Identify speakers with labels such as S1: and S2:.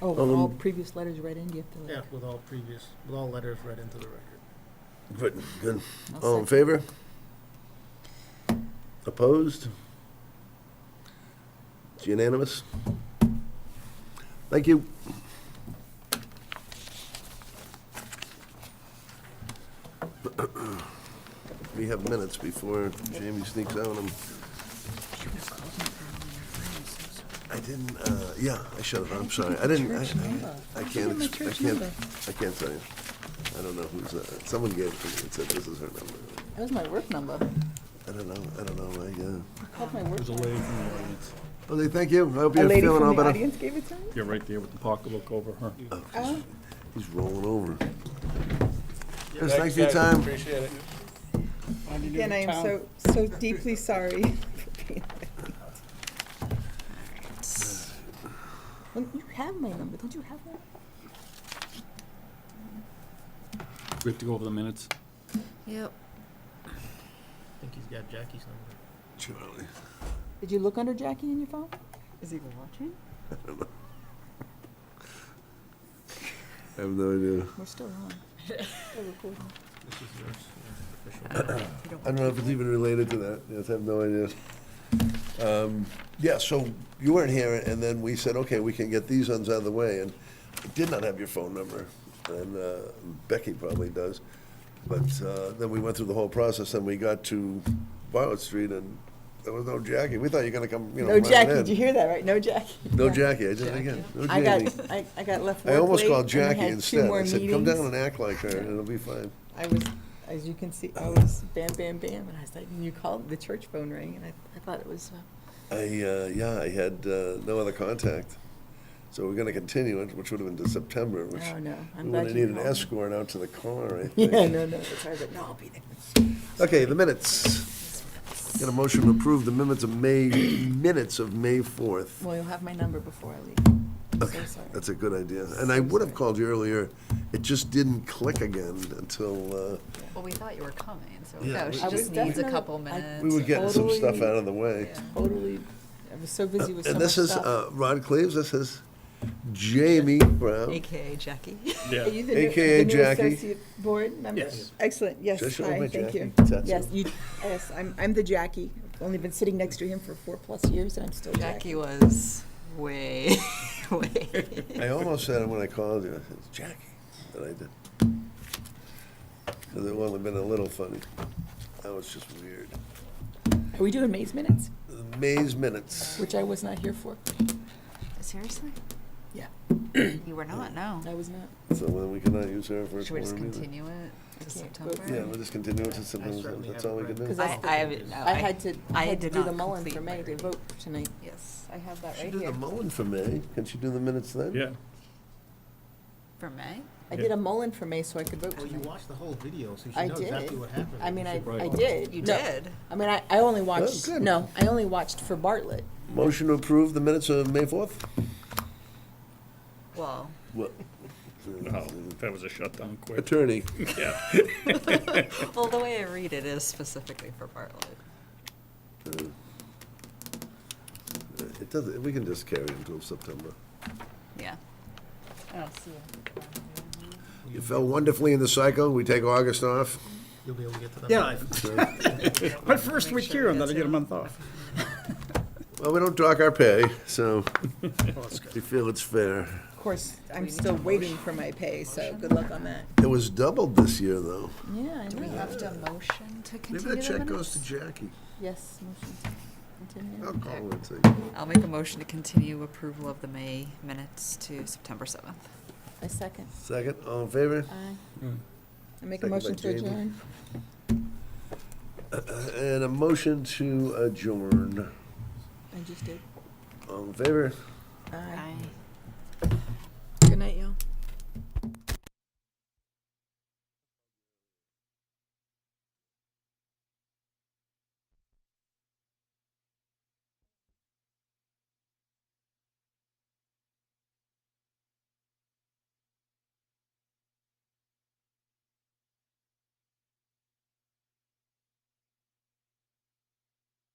S1: Oh,
S2: Well,
S1: all
S2: then-
S1: previous letters read in, you have to.
S3: Yeah, with all previous, with all letters read into the record.
S2: Good, good.
S1: I'll
S2: All in
S1: second.
S2: favor? Opposed? It's unanimous. Thank you. We have minutes before Jamie sneaks out and I didn't, uh, yeah, I should have, I'm sorry. I didn't, I, I- I can't,
S1: my
S2: ex- I
S1: church
S2: can't,
S1: number.
S2: I can't tell you. I don't know who's, uh, someone gave it to me and said this is her number.
S1: That was my work number.
S2: I don't know. I don't know. I, uh,
S1: I called my work
S4: There's a
S1: number.
S4: lady from the audience.
S2: well, they thank you. I hope
S1: A
S2: you're
S1: lady
S2: feeling all
S1: from the
S2: better.
S1: audience gave it to me?
S4: You're right there with the pocketbook over her.
S1: Oh,
S2: He's rolling over. Chris, thanks for your time.
S5: Appreciate it.
S1: Again, I am so, so deeply sorry for being late. Well, you have my number, don't you have that?
S4: We have to go over the minutes.
S6: Yep.
S3: I think he's got Jackie's number.
S2: Charlie.
S1: Did you look under Jackie in your phone? Is he watching?
S2: I have no idea.
S1: We're still on. Still recording.
S3: This is yours, yeah, official.
S2: I don't know if it's even related to that. Yes, I have no idea. Um, yeah, so you weren't here, and then we said, okay, we can get these ones out of the way, and I did not have your phone number, and uh, Becky probably does. But uh, then we went through the whole process, and we got to Violet Street, and there was no Jackie. We thought you were gonna come, you know,
S1: No
S2: running
S1: Jackie,
S2: in.
S1: did you hear that, right? No Jackie.
S2: No
S1: Yeah.
S2: Jackie, I did it again. No
S1: I
S2: Jamie.
S1: got, I, I got left work
S2: I almost
S1: late,
S2: called
S1: and we had
S2: Jackie
S1: two
S2: instead.
S1: more
S2: I said, come down
S1: meetings."
S2: and act like her, and it'll be fine.
S1: I was, as you can see, I was bam, bam, bam, and I was like, and you called, the church phone rang, and I, I thought it was, uh,
S2: I, uh, yeah, I had uh, no other contact. So we're gonna continue it, which would have been to September, which
S1: oh, no,
S2: we
S1: I'm
S2: would
S1: glad
S2: have
S1: you
S2: needed an
S1: called.
S2: escort out to the car, I think.
S1: Yeah, no, no, that's right, but no, I'll be there.
S2: Okay, the minutes. Got a motion to approve the minutes of May, minutes of May 4th.
S1: Well, you'll have my number before I leave. I'm so sorry.
S2: That's a good idea. And I would have called you earlier, it just didn't click again until, uh,
S6: Well, we thought you were coming, so
S2: Yeah, we-
S6: no, Oh, she
S2: I
S1: was
S6: just needs a
S1: definitely-
S6: couple
S1: I-
S6: minutes.
S2: we were getting some stuff
S1: Totally.
S2: out of the way.
S6: Yeah.
S1: Totally, I was so busy with so
S2: And
S1: much
S2: this is
S1: stuff.
S2: uh, Rod Cleves, this is Jamie Brown.
S6: AKA Jackie.
S1: Are you the new-
S2: AKA
S1: the new
S2: Jackie.
S1: associate Board member?
S4: Yes.
S1: Excellent, yes,
S2: Just show oh, my
S1: hi, thank you.
S2: Jackie tattoo.
S1: Yes, you, yes, I'm, I'm the Jackie. I've only been sitting next to him for four-plus years, and I'm still Jackie.
S6: Jackie was way, way.
S2: I almost said it when I called you, I said, Jackie, and I did. Because it would have been a little funny. That was just weird.
S1: Are we doing May's minutes,
S2: The Maze minutes.
S1: which I was not here for?
S6: Seriously?
S1: Yeah.
S6: You were not, no.
S1: I was not.
S2: So then we cannot use her for a
S6: Should we just
S2: quorum either.
S6: continue it to
S1: can't go
S6: September?
S1: through
S2: Yeah, we'll just continue it to
S3: I
S2: September,
S3: certainly
S2: that's all we can
S3: haven't
S2: do.
S1: read-
S6: I, Oh, I haven't, no.
S1: I had to, I
S6: I
S1: had to
S6: did
S1: do the
S6: not
S1: Mullen
S6: complete
S1: for
S6: my
S1: May to
S6: reading.
S1: vote tonight.
S6: Yes,
S1: I have that
S2: She
S1: right
S2: did the
S1: here.
S2: Mullen for May, can she do the minutes then?
S4: Yeah.
S6: for May?
S1: I did a Mullen for May so I could vote
S6: Oh,
S3: Well, you
S1: tonight.
S3: watched the whole video, so you
S1: I
S3: should know exactly
S1: did.
S3: what happened.
S1: I mean, I,
S4: Right.
S1: I did.
S6: You
S1: No,
S6: did.
S1: I mean, I, I only watched,
S2: good.
S1: no, I only watched for Bartlett.
S2: Motion to approve the minutes of May fourth?
S6: Well,
S2: What?
S4: No, Oh, that was a shutdown quick.
S2: Attorney.
S6: well, the way I read it is specifically for Bartlett.
S2: It doesn't, we can just carry it until September.
S6: Yeah. Oh, see.
S2: You fell wonderfully in the cycle, we take August off.
S3: You'll be able to get to that.
S5: Yeah, my first
S6: Make
S5: week
S6: sure
S5: here,
S6: we
S5: and
S6: get
S5: then I get
S6: to-
S5: a month off.
S2: Well, we don't dock our pay, so
S5: Oh, that's good.
S2: we feel it's fair.
S1: Of course, I'm
S6: need
S1: still
S6: a
S1: waiting for my pay, so good luck on that.
S2: It was doubled this year, though.
S1: Yeah, I
S6: Do we have to motion to
S2: Maybe
S6: continue
S2: that
S6: the
S2: check goes
S6: minutes?
S2: to Jackie.
S1: Yes, motion to continue.
S2: I'll call her and see.
S6: I'll make a motion to continue approval of the May minutes to September 7th.
S1: A second.
S2: Second, all in favor?
S1: Aye. I make a
S2: Second by
S1: motion to
S2: Jamie.
S1: adjourn.
S2: And a motion to adjourn.
S1: I just did.
S2: All in favor?
S1: Aye.
S6: Aye.